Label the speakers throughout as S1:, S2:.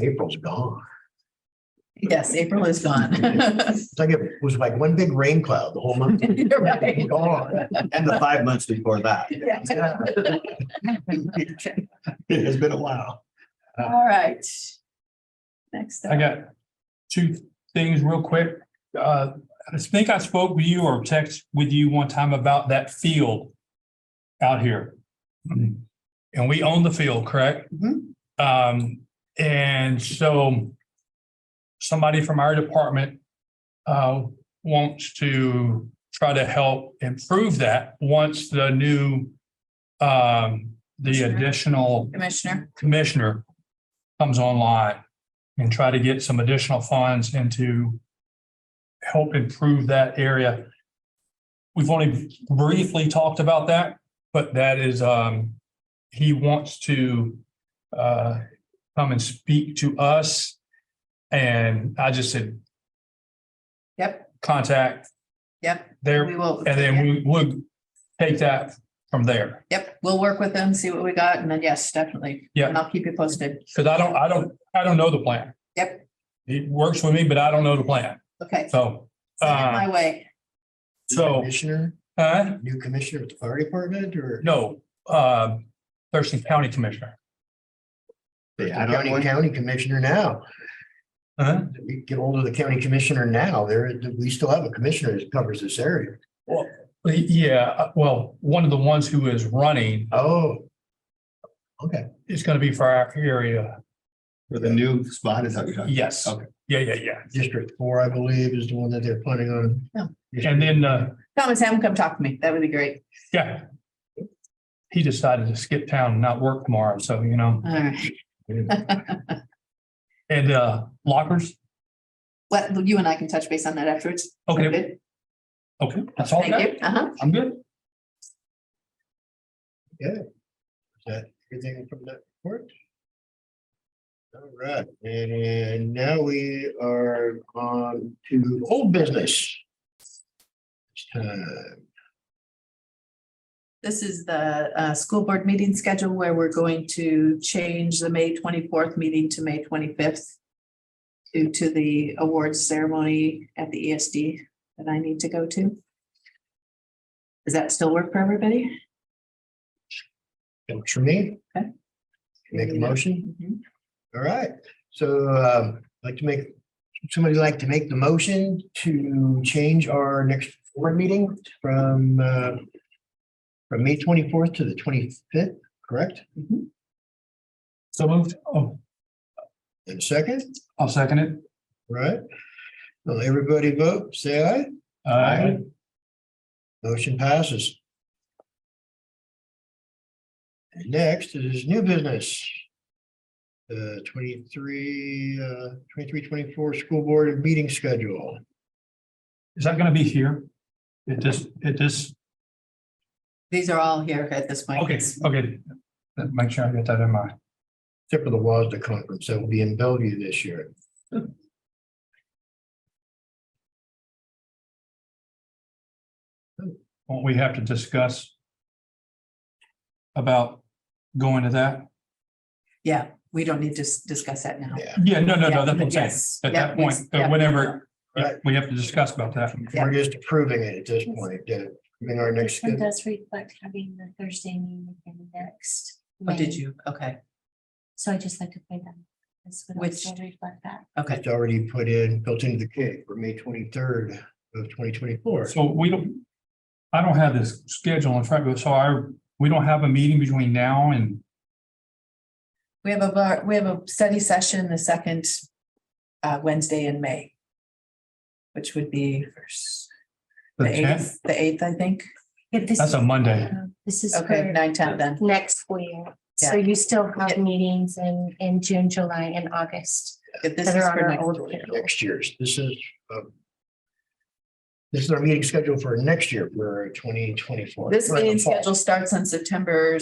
S1: April's gone.
S2: Yes, April is gone.
S1: It's like it was like one big rain cloud the whole month.
S2: You're right.
S1: Gone.
S3: And the five months before that.
S2: Yeah.
S1: Yeah. It has been a while.
S2: All right. Next.
S4: I
S2: up.
S4: got two things real quick. Uh, I think I spoke with you or text with you one time about that field out here. And we own the field, correct?
S2: Mhm.
S4: Um, and so somebody from our department uh, wants to try to help improve that once the new um, the additional
S2: Commissioner,
S4: commissioner comes online and try to get some additional funds and to help improve that area. We've only briefly talked about that, but that is, um, he wants to, uh, come and speak to us. And I just said.
S2: Yep.
S4: Contact.
S2: Yep.
S4: There,
S2: we will.
S4: and then we would take that from there.
S2: Yep, we'll work with them, see what we got, and then yes, definitely.
S4: Yeah.
S2: And I'll keep you posted.
S4: Cause I don't, I don't, I don't know the plan.
S2: Yep.
S4: It works with me, but I don't know the plan.
S2: Okay.
S4: So,
S2: Send
S4: Uh,
S2: it My way.
S4: So-
S1: Commissioner,
S4: uh,
S1: new commissioner at the fire department or?
S4: no, uh, Thurston County Commissioner.
S1: The
S3: I got
S1: county,
S3: one.
S1: county commissioner now.
S4: Uh,
S1: We get hold of the county commissioner now. There, we still have a commissioner that covers this area.
S4: yeah, uh, well, one of the ones who is running
S1: Oh,
S4: is gonna be for our area.
S3: For the new spot is that you're talking
S4: Yes.
S3: Okay.
S4: Yeah, yeah, yeah.
S1: District Four, I believe, is the one that they're planning on.
S2: Yeah.
S4: And then, uh,
S2: Thomas, have him come talk to me. That would be great.
S4: yeah. He decided to skip town and not work tomorrow. So, you know,
S2: All right.
S4: and, uh, lockers.
S2: Well, you and I can touch base on that afterwards.
S4: Okay,
S2: Good.
S4: okay. That's all I
S2: Thank
S4: got.
S2: you. Uh-huh.
S4: I'm good.
S1: Everything from that report? All right, and now we are on to old business. It's time.
S2: This is the uh, school board meeting schedule where we're going to change the May twenty-fourth meeting to May twenty-fifth due to the awards ceremony at the ESD that I need to go to. Does that still work for everybody?
S1: Works for me.
S2: Okay.
S1: Make a motion.
S2: Mhm.
S1: All right, so um, I'd like to make, somebody like to make the motion to change our next board meeting from uh, from May twenty-fourth to the twenty-fifth, correct?
S4: So moved. Oh,
S1: And second,
S4: I'll second it.
S1: right? Well, everybody vote, say aye.
S4: Uh,
S1: Motion passes. And Next is new business. Uh, twenty-three, uh, twenty-three, twenty-four school board meeting schedule.
S4: is that gonna be here? It just, it just
S2: These are all here at this point.
S4: Okay, okay. Let- Make sure I get that in mind.
S1: except for the WASDA conference that will be in Bellevue this year.
S4: Won't we have to discuss about going to that?
S2: Yeah, we don't need to s- discuss that now.
S1: Yeah.
S4: Yeah, no, no,
S2: Yeah,
S4: no, that's what I'm saying.
S2: yes,
S4: At
S2: yeah,
S4: that
S2: we-
S4: point,
S2: yeah.
S4: uh, whenever, yeah,
S1: Right.
S4: we have to discuss about that.
S2: Yeah.
S1: We're just approving it at this point, uh, in our next.
S5: This one
S1: schedule.
S5: does reflect having the Thursday meeting in next.
S2: Oh, did
S5: May.
S2: you? Okay,
S5: So I just like to play them. This would
S2: Which-
S5: also reflect that.
S2: okay.
S1: It's already put in, built into the cake for May twenty-third of twenty twenty-four.
S4: So we don't, I don't have this schedule in front of us, so I, we don't have a meeting between now and,
S2: We have a, bar- we have a study session the second uh, Wednesday in May, which would be first.
S4: The
S2: The eighth, the eighth, I think.
S5: If this,
S4: that's a Monday.
S5: uh, this is
S2: Okay,
S5: for
S2: nine, ten then.
S5: next year. So you still have meetings in, in June, July and August.
S2: If This
S5: That
S2: is
S5: are on
S2: for
S5: our
S2: next
S5: old
S2: week.
S5: schedule.
S1: Next year's, this is. um, This is our meeting schedule for next year, for twenty twenty-four.
S2: This meeting schedule starts on September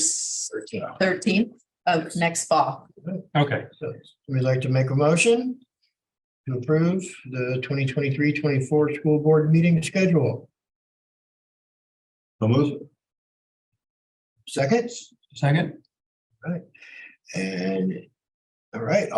S2: thirteenth of next fall.
S4: Okay,
S1: We'd like to make a motion to approve the 2023-24 school board meeting schedule.
S3: So moved.
S1: Second?
S4: second?
S1: And, all right,